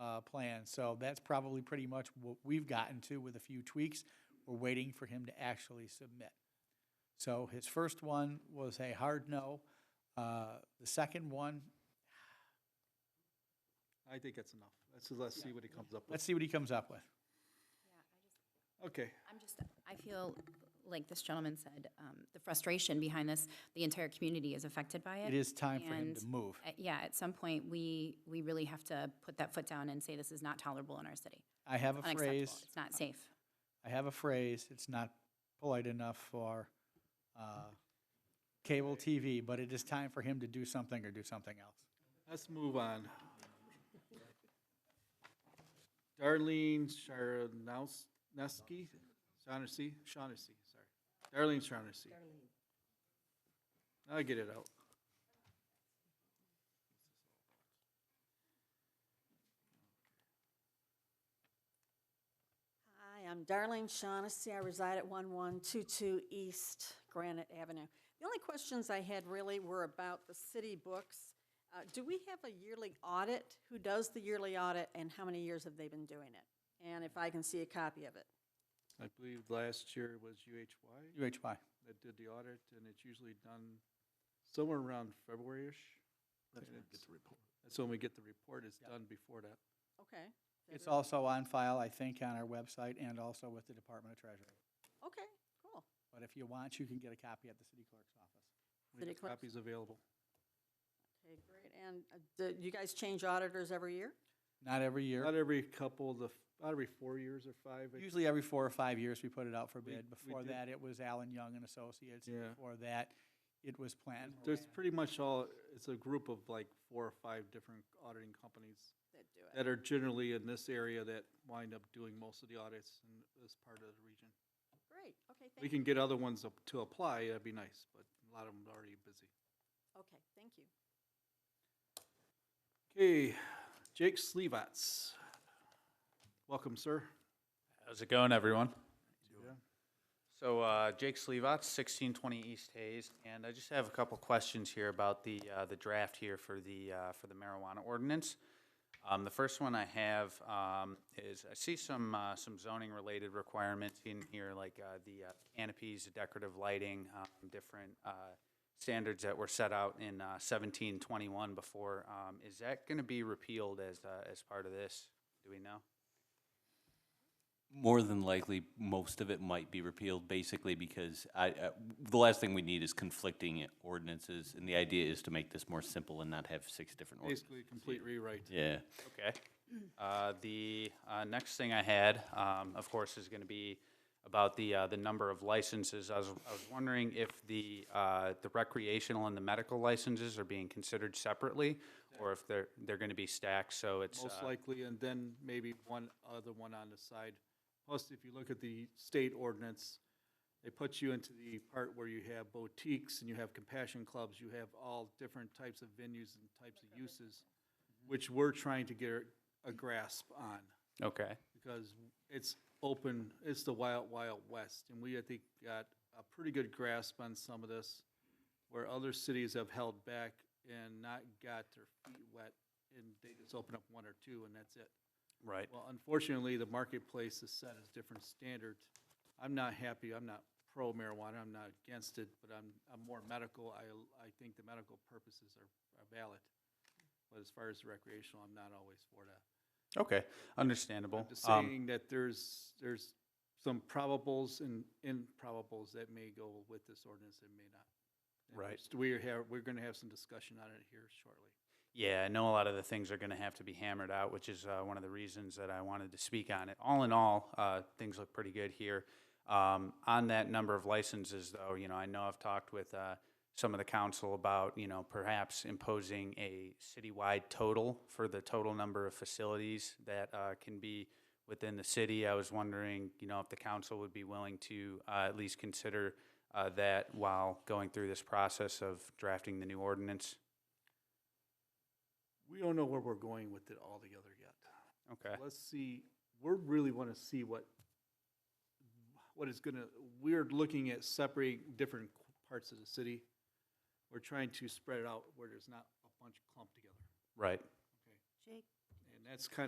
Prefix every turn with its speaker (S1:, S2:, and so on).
S1: uh, plan. So that's probably pretty much what we've gotten to with a few tweaks. We're waiting for him to actually submit. So his first one was a hard no. Uh, The second one,
S2: I think that's enough. Let's, let's see what he comes up with.
S1: let's see what he comes up with.
S3: Yeah, I just,
S2: Okay,
S3: I'm just, I feel, like this gentleman said, um, the frustration behind this, the entire community is affected by it.
S1: It is time for him to
S3: And,
S1: move.
S3: uh, Yeah, at some point, we, we really have to put that foot down and say this is not tolerable in our city.
S1: I have a
S3: Unacceptable.
S1: phrase,
S3: It's not safe.
S1: I have a phrase, it's not polite enough for uh, cable TV, but it is time for him to do something or do something else.
S2: let's move on. Darlene Sharonowski, Shaughnessy, Shaughnessy, sorry. Darlene Shaughnessy. I'll get it out.
S4: Hi, I'm Darlene Shaughnessy. I reside at 1122 East Granite Avenue. The only questions I had really were about the city books. Uh, Do we have a yearly audit? Who does the yearly audit, and how many years have they been doing it? And if I can see a copy of it.
S2: I believe last year was UHY
S1: UHY.
S2: that did the audit, and it's usually done somewhere around February-ish. That's when we get the report. That's when we get the report. It's done before that.
S4: Okay,
S1: It's also on file, I think, on our website and also with the Department of Treasury.
S4: okay, cool.
S1: But if you want, you can get a copy at the city clerk's office.
S2: We
S4: City
S2: have
S4: clerk?
S2: copies available.
S4: Okay, great. And uh, do you guys change auditors every year?
S1: Not every year.
S2: Not every couple, the, not every four years or five. I
S1: Usually every four or five years, we put it out for
S2: We-
S1: bid.
S2: we
S1: Before
S2: did-
S1: that, it was Allen Young and Associates.
S2: Yeah.
S1: Before that, it was planned.
S2: There's pretty much all, it's a group of like four or five different auditing companies
S4: That do it.
S2: that are generally in this area that wind up doing most of the audits in this part of the region.
S4: Great, okay,
S2: We
S4: thank you.
S2: can get other ones up to apply, that'd be nice, but a lot of them are already busy.
S4: Okay, thank you.
S2: Okay, Jake Slevats. Welcome, sir.
S5: How's it going, everyone?
S2: Yeah.
S5: So uh, Jake Slevats, 1620 East Hayes, and I just have a couple questions here about the uh, the draft here for the uh, for the marijuana ordinance. Um, The first one I have um, is, I see some uh, some zoning-related requirements in here, like uh, the uh, canopies, the decorative lighting, um, different uh, standards that were set out in uh, 1721 before. Um, Is that going to be repealed as uh, as part of this? Do we know?
S6: More than likely, most of it might be repealed, basically because I, uh, the last thing we need is conflicting ordinances, and the idea is to make this more simple and not have six different ordinances.
S2: Basically, complete rewrite.
S6: Yeah.
S5: Okay. Uh, The uh, next thing I had, um, of course, is going to be about the, uh, the number of licenses. I was, I was wondering if the, uh, the recreational and the medical licenses are being considered separately, or if they're, they're going to be stacked, so it's.
S2: Most
S5: uh,
S2: likely, and then maybe one other one on the side. Plus, if you look at the state ordinance, they put you into the part where you have boutiques and you have compassion clubs, you have all different types of venues and types of uses, which we're trying to get a grasp on,
S5: Okay,
S2: because it's open, it's the wild, wild west, and we, I think, got a pretty good grasp on some of this, where other cities have held back and not got their feet wet, and they just open up one or two, and that's it.
S5: right.
S2: Well, unfortunately, the marketplace is set as different standards. I'm not happy, I'm not pro marijuana, I'm not against it, but I'm, I'm more medical. I, I think the medical purposes are are valid. But as far as recreational, I'm not always for that.
S5: Okay, understandable.
S2: Just
S5: Um,
S2: saying that there's, there's some probables and improbables that may go with this ordinance and may not. And
S5: Right.
S2: just- We have, we're gonna have some discussion on it here shortly.
S5: Yeah, I know a lot of the things are going to have to be hammered out, which is uh, one of the reasons that I wanted to speak on it. All in all, uh, things look pretty good here. Um, on that number of licenses, though, you know, I know I've talked with uh, some of the council about, you know, perhaps imposing a citywide total for the total number of facilities that uh, can be within the city. I was wondering, you know, if the council would be willing to uh, at least consider uh, that while going through this process of drafting the new ordinance.
S2: We don't know where we're going with it altogether yet.
S5: Okay.
S2: let's see, we're really want to see what, what is gonna, we're looking at separating different qu- parts of the city. We're trying to spread it out where there's not a bunch clumped together,
S5: Right.
S2: okay? And that's kind of.